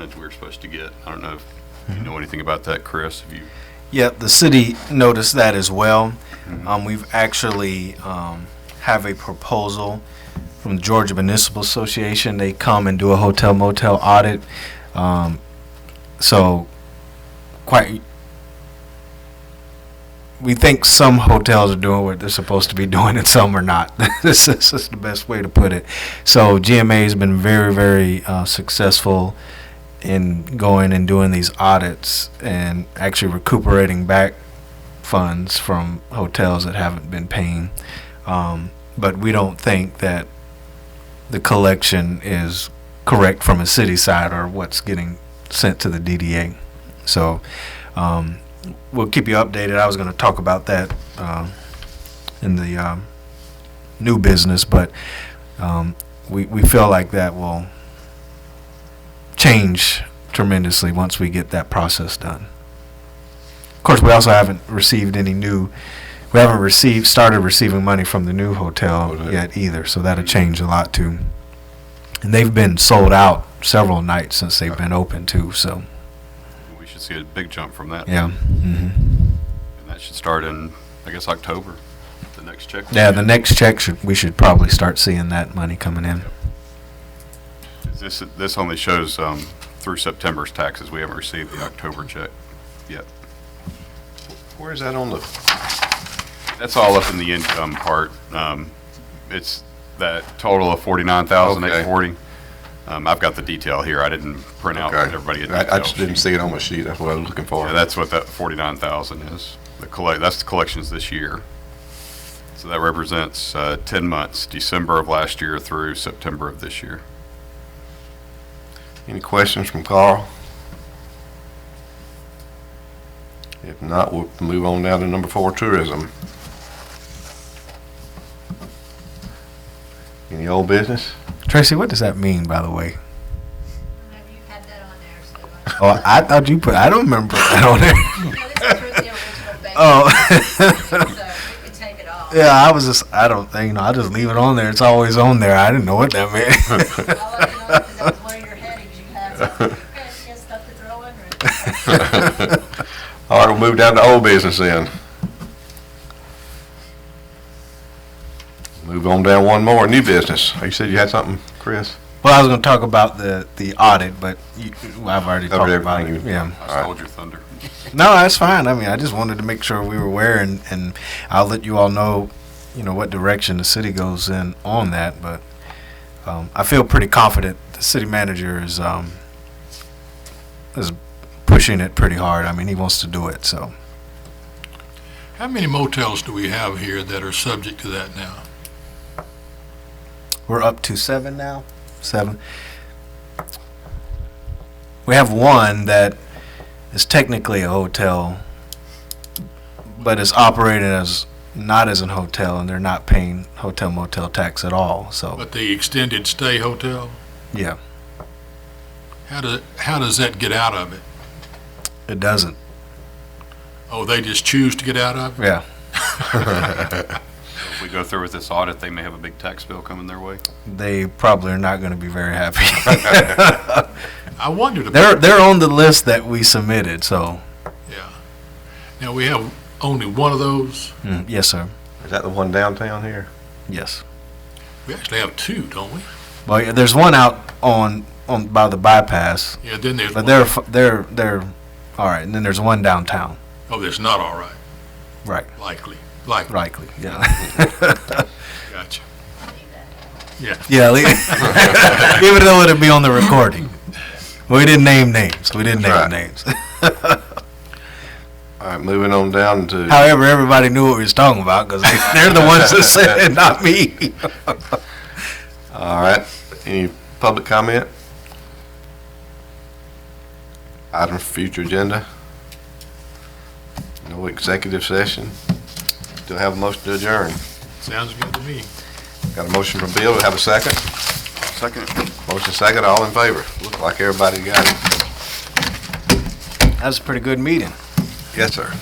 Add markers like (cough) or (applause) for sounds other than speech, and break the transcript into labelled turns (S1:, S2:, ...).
S1: ones we were supposed to get. I don't know if you know anything about that, Chris, if you,
S2: Yeah, the city noticed that as well. Um, we've actually um, have a proposal from the Georgia Municipal Association. They come and do a hotel motel audit. Um, so, quite. We think some hotels are doing what they're supposed to be doing and some are not. (laughs) this, is, this is the best way to put it. So, GMA has been very, very uh, successful in going and doing these audits and actually recuperating back funds from hotels that haven't been paying. Um, but we don't think that the collection is correct from a city side or what's getting sent to the DDA. So um, we'll keep you updated. I was going to talk about that um in the um, new business, but um, we, we feel like that will change tremendously once we get that process done. Of course, we also haven't received any new, we haven't received, started receiving money from the new hotel
S1: Hotel.
S2: yet either, so that'll change a lot too. And they've been sold out several nights since they've been open too, so,
S1: we should see a big jump from that.
S2: yeah. mhm.
S1: And that should start in, I guess, October, the next check.
S2: Yeah, the next check should, we should probably start seeing that money coming in.
S1: Is This, this only shows um, through September's taxes. We haven't received the October check yet.
S3: Where is that on the,
S1: That's all up in the income part. Um, It's that total of forty-nine thousand eight forty. Um, I've got the detail here. I didn't print out
S3: okay.
S1: Oh, everybody a
S3: I I
S1: detail
S3: just didn't
S1: sheet.
S3: see it on my sheet, that's what I was looking for.
S1: Yeah, that's what that forty-nine thousand is. The collect, that's the collections this year. So that represents uh, ten months, December of last year through September of this year.
S3: Any questions from Carl? If not, we'll move on now to number four, tourism. Any old business?
S2: Tracy, what does that mean, by the way?
S4: Have you had that on there? So
S2: (laughs) Oh,
S4: uh,
S2: I thought you put, I don't remember that on there.
S4: No, this is the original
S2: Oh.
S4: base, (laughs) so we could take it off.
S2: (laughs) Yeah, I was just, I don't, you know, I just leave it on there. It's always on there. I didn't know what that
S3: (laughs)
S2: meant. (laughs)
S4: All I know is that was one of your headings you had. so I was like, "Okay, she has stuff to throw under it."
S3: All right, we'll move down to old business then. Move on down one more, new business. Oh, You said you had something, Chris?
S2: well, I was going to talk about the, the audit, but you, I've already
S3: Covered
S2: talked about it.
S3: everything you-
S2: Yeah.
S1: I stole your thunder.
S2: No, that's fine. I mean, I just wanted to make sure we were aware, and, and I'll let you all know, you know, what direction the city goes in on that. But um, I feel pretty confident the city manager is um, is pushing it pretty hard. I mean, he wants to do it. So
S5: How many motels do we have here that are subject to that now?
S2: we're up to seven now. Seven. We have one that is technically a hotel, but is operating as not as an hotel, and they're not paying hotel motel tax at all. So.
S5: But the extended stay hotel,
S2: Yeah,
S5: how do, how does that get out of it?
S2: it doesn't.
S5: Oh, they just choose to get out of it?
S2: Yeah,
S1: If we go through with this audit, they may have a big tax bill coming their way.
S2: they probably are not going to be very happy.
S5: I wondered
S2: they're
S5: about,
S2: they're on the list that we submitted. So
S5: yeah. Now, we have only one of those.
S2: mm, yes, sir.
S3: Is that the one downtown here?
S2: Yes.
S5: We actually have two, don't we?
S2: Well, yeah, there's one out on on by the bypass,
S5: Yeah, then there's
S2: but
S5: one.
S2: they're f- they're they're all right. And then there's one downtown,
S5: Oh, that's not all right,
S2: right?
S5: likely, likely.
S2: Likely. Yeah. (laughs)
S5: Gotcha.
S4: I knew that.
S5: Yeah,
S2: yeah. le- (laughs) Even though it'd be on the recording, we didn't name names. We didn't name
S3: Right.
S2: names.
S3: All right, moving on down to,
S2: However, everybody knew what we was talking about because they're the ones that said it, not me.
S3: all right, any public comment? Item for future agenda? No executive session? Do I have a motion to adjourn?
S5: sounds good to me.
S3: Got a motion from Bill, Do I have a second?
S1: Second.
S3: Motion second, all in favor? Look like everybody got it.
S2: That was a pretty good meeting.
S3: Yes, sir.